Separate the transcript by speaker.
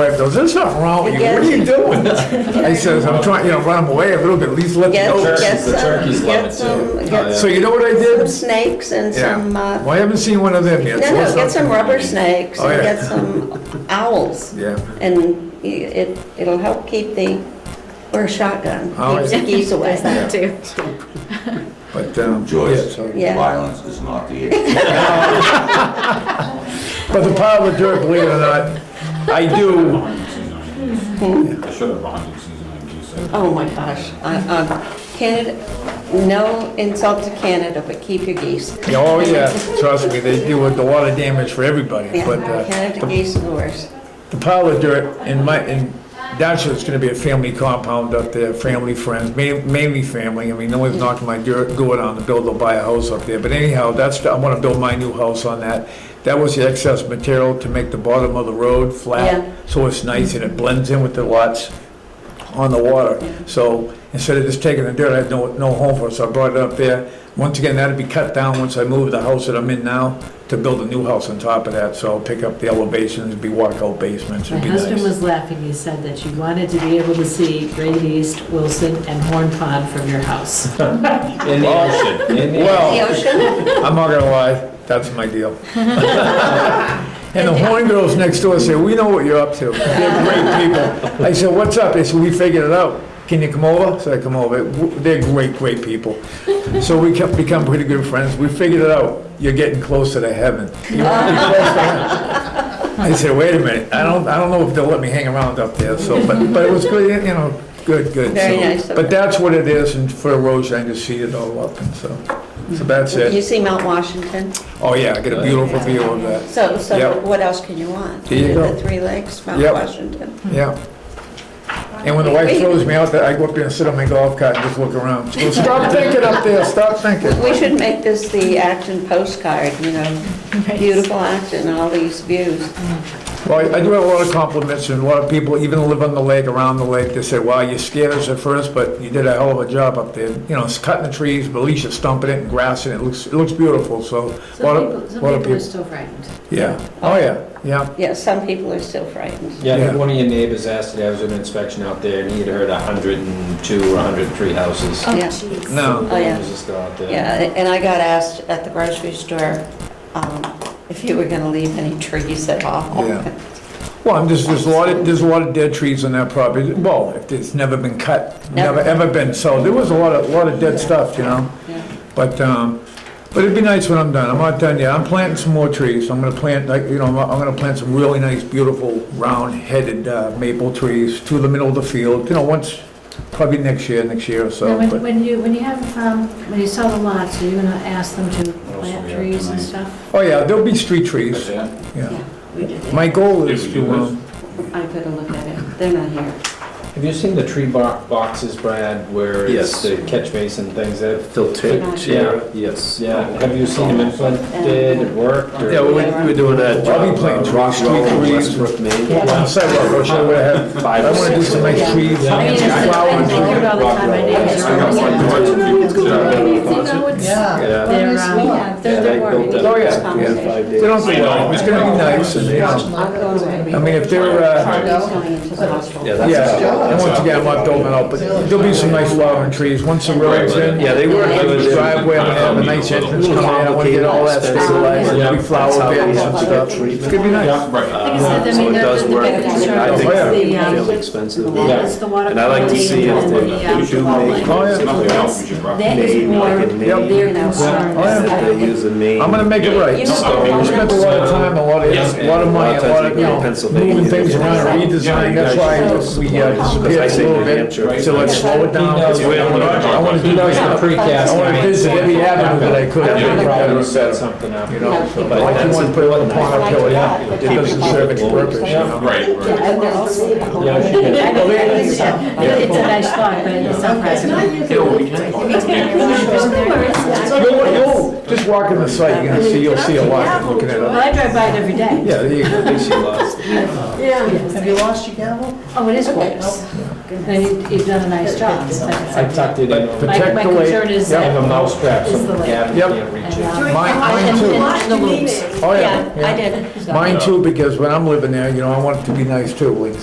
Speaker 1: wife goes, there's nothing wrong with you, what are you doing? I says, I'm trying, you know, run away a little bit, at least let me
Speaker 2: Get,
Speaker 1: go.
Speaker 2: get
Speaker 3: the turkeys
Speaker 2: some,
Speaker 3: love
Speaker 2: get
Speaker 3: it
Speaker 2: some,
Speaker 3: too.
Speaker 2: get
Speaker 1: Oh, So you know what I
Speaker 2: some
Speaker 1: did?
Speaker 2: snakes and
Speaker 1: Yeah,
Speaker 2: some, uh,
Speaker 1: well, I haven't seen one of them yet.
Speaker 2: no,
Speaker 1: so
Speaker 2: no,
Speaker 1: it's
Speaker 2: get
Speaker 1: not-
Speaker 2: some rubber snakes
Speaker 1: Oh,
Speaker 2: and
Speaker 1: yeah.
Speaker 2: get some owls.
Speaker 1: Yeah.
Speaker 2: And y- it, it'll help keep the, or a shotgun,
Speaker 1: Oh,
Speaker 2: keeps
Speaker 1: yeah.
Speaker 2: the geese away.
Speaker 4: too.
Speaker 1: But, um, yeah,
Speaker 5: Joyce,
Speaker 1: so-
Speaker 2: Yeah.
Speaker 5: violence is not the issue.
Speaker 1: but the pile of dirt, believe it or not, I do,
Speaker 3: I should have bonded since 97.
Speaker 2: Oh, my gosh. I- um, Canada, no insult to Canada, but keep your geese.
Speaker 1: oh, yeah, trust me, they do a lot of damage for everybody,
Speaker 2: Yeah,
Speaker 1: but, uh,
Speaker 2: Canada geese are the worst.
Speaker 1: the pile of dirt in my, in Dashwood, it's gonna be a family compound up there, family, friends, ma- mainly family. I mean, no one's knocking my dirt, door down to build or buy a house up there, but anyhow, that's, I wanna build my new house on that. That was the excess material to make the bottom of the road
Speaker 2: Yeah.
Speaker 1: flat, so it's nice and it blends in with the lots on the water. So instead of just taking the dirt, I had no, no home for it, so I brought it up there. Once again, that'd be cut down once I move the house that I'm in now to build a new house on top of that. So I'll pick up the elevations, it'd be walkout basements,
Speaker 6: My
Speaker 1: it'd be
Speaker 6: husband
Speaker 1: nice.
Speaker 6: was laughing, he said that you wanted to be able to see Great East, Wilson, and Horn Pond from your house.
Speaker 3: In the ocean, in the
Speaker 2: The
Speaker 1: Well,
Speaker 2: ocean?
Speaker 1: I'm not gonna lie, that's my deal. And the horn girls next door say, we know what you're up to. They're great people. I said, what's up? They said, we figured it out. Can you come over? So I come over. They're great, great people. So we kept, become pretty good friends. We figured it out. You're getting closer to heaven. You want to be close to heaven? I said, wait a minute. I don't, I don't know if they'll let me hang around up there. So, but, but it was good, you know, good, good.
Speaker 2: Very
Speaker 1: So-
Speaker 2: nice of
Speaker 1: But
Speaker 2: them.
Speaker 1: that's what it is. And for erosion, I just see it all up. And so, so that's
Speaker 2: You
Speaker 1: it.
Speaker 2: see Mount Washington?
Speaker 1: Oh, yeah, I get a beautiful view of that.
Speaker 2: So, so
Speaker 1: Yep.
Speaker 2: what else can you want?
Speaker 1: There you go.
Speaker 2: The Three Lakes, Mount
Speaker 1: Yep.
Speaker 2: Washington.
Speaker 1: Yeah. And when the wife throws me out there, I go up there and sit on my golf cart and just look around. She goes, stop thinking up there, stop thinking.
Speaker 2: We should make this the Acton postcard, you know, beautiful Acton, all these views.
Speaker 1: Well, I do have a lot of compliments and a lot of people, even who live on the lake, around the lake, they say, wow, you scared us at first, but you did a hell of a job up there. You know, it's cutting the trees, but at least you're stumping it and grassing it. It looks, it looks beautiful, so. a lot
Speaker 6: Some
Speaker 1: of-
Speaker 6: people, some
Speaker 1: lot of
Speaker 6: people are still frightened.
Speaker 1: Yeah, oh, yeah, yeah.
Speaker 2: Yeah, some people are still frightened.
Speaker 3: Yeah, I think
Speaker 1: Yeah.
Speaker 3: one of your neighbors asked today, I was at an inspection out there, and he had heard 102 or 103 houses.
Speaker 2: Yeah.
Speaker 1: No,
Speaker 2: Oh, yeah.
Speaker 3: It was just out there.
Speaker 2: Yeah, and I got asked at the grocery store um, if you were going to leave any trees at all.
Speaker 1: Yeah. well, I'm just, there's a lot of, there's a lot of dead trees on that property. Well, it's never been cut, never,
Speaker 2: Never.
Speaker 1: ever been sold. There was a lot of, lot of dead stuff, you know?
Speaker 2: Yeah.
Speaker 1: But, um, but it'd be nice when I'm done. I'm not done yet. I'm planting some more trees. I'm gonna plant, like, you know, I'm I'm gonna plant some really nice, beautiful, round-headed uh, maple trees to the middle of the field, you know, once, probably next year, next year or so.
Speaker 6: Now, when,
Speaker 1: but-
Speaker 6: when you, when you have, um, when you sell the lots, are you gonna ask them to plant
Speaker 3: we have
Speaker 6: trees and
Speaker 3: tonight?
Speaker 6: stuff?
Speaker 1: Oh, yeah, there'll be street trees,
Speaker 3: Yeah.
Speaker 1: yeah.
Speaker 2: We did it.
Speaker 1: My goal is
Speaker 3: Did we
Speaker 1: to,
Speaker 3: do
Speaker 1: um,
Speaker 2: I could have looked at it. They're not here.
Speaker 3: Have you seen the tree bo- boxes, Brad, where it's
Speaker 7: Yes.
Speaker 3: the catch basin things that?
Speaker 7: Filtered, yeah, yes.
Speaker 3: Yeah, have you seen them implemented, it worked? or-
Speaker 7: Yeah, we were- we were doing that.
Speaker 1: I'll be playing uh,
Speaker 3: Uh,
Speaker 1: rock, street trees.
Speaker 7: Westbrook, Maine.
Speaker 1: on sidewalk, or should I have, I wanna do some nice trees.
Speaker 6: Oh, I mean, it's, I think
Speaker 1: flowers.
Speaker 6: about all the time, my neighbors are always.
Speaker 3: Yeah.
Speaker 6: They're, um, they're, they're worried.
Speaker 7: built
Speaker 1: Oh,
Speaker 7: that
Speaker 1: yeah, yeah.
Speaker 7: five
Speaker 1: They don't,
Speaker 7: days.
Speaker 1: it's gonna be nice, and, you know,
Speaker 2: I'll go away.
Speaker 1: I mean, if they're, uh,
Speaker 2: Charlie's going into the hospital.
Speaker 7: Yeah, that's his
Speaker 1: Yeah,
Speaker 7: job.
Speaker 1: and once again, I'm not doling out, but there'll be some nice flowering trees, once the road's in.
Speaker 7: Yeah, they were
Speaker 1: Like
Speaker 7: doing
Speaker 1: the
Speaker 7: it.
Speaker 1: driveway, I'm gonna have a nice entrance coming in, I wanna get all that stabilized, there'll be flower beds and stuff. It's gonna be nice.
Speaker 6: Like I said, I
Speaker 7: So
Speaker 6: mean,
Speaker 7: it
Speaker 6: they're,
Speaker 7: does work.
Speaker 6: they're
Speaker 7: I think
Speaker 1: Oh,
Speaker 7: it's
Speaker 6: yeah.
Speaker 7: fairly expensive.
Speaker 6: That is the water.
Speaker 7: And I like to
Speaker 6: quality
Speaker 7: see if
Speaker 6: and
Speaker 7: they
Speaker 6: the, um,
Speaker 7: do make
Speaker 1: Oh, yeah.
Speaker 6: That is
Speaker 7: Name,
Speaker 6: more
Speaker 7: like a name.
Speaker 6: their
Speaker 1: Oh, yeah.
Speaker 6: concern.
Speaker 7: that they use in Maine.
Speaker 1: I'm gonna make it right.
Speaker 2: You know,
Speaker 1: We spent a lot of time, a lot of, a lot of money, a lot of, you know, moving things around, redesigning, that's why we uh, disappeared a little bit. So let's slow it down, I wanna do nice stuff. I wanna visit every avenue that I could, I think that
Speaker 3: Probably
Speaker 1: was
Speaker 3: set
Speaker 1: better,
Speaker 3: something up.
Speaker 1: you know? so, but Like you wanna put a little pond up hill, yeah, it doesn't serve its purpose, you know?
Speaker 6: uh, "Oh,
Speaker 3: Yeah.
Speaker 6: It's a nice thought, but it's not practical.
Speaker 1: You'll, you'll, just walk in the site, you're gonna see, you'll see a lot looking at
Speaker 6: Well,
Speaker 1: it.
Speaker 6: I drive by it every day.
Speaker 1: Yeah, there you go.
Speaker 7: I think she lost.
Speaker 8: Have you lost your gavel?
Speaker 6: Oh, it is close. Then you- you've done a nice job. It's like- it's
Speaker 3: I
Speaker 6: like-
Speaker 3: tucked it in.
Speaker 1: But-
Speaker 6: My,
Speaker 3: I
Speaker 1: Protect
Speaker 6: my
Speaker 1: the lake.
Speaker 6: concern is.
Speaker 1: Yep.
Speaker 3: have a mouse trap, so
Speaker 6: It's the lake.
Speaker 3: Gavin
Speaker 1: Yep.
Speaker 3: can't reach it.
Speaker 6: And, um,
Speaker 1: Mine- mine
Speaker 6: and-
Speaker 1: too.
Speaker 6: and the loops.
Speaker 1: Oh,
Speaker 2: Yeah, I did.
Speaker 6: side.
Speaker 1: Mine too, because when I'm living there, you know, I want it to be nice too, like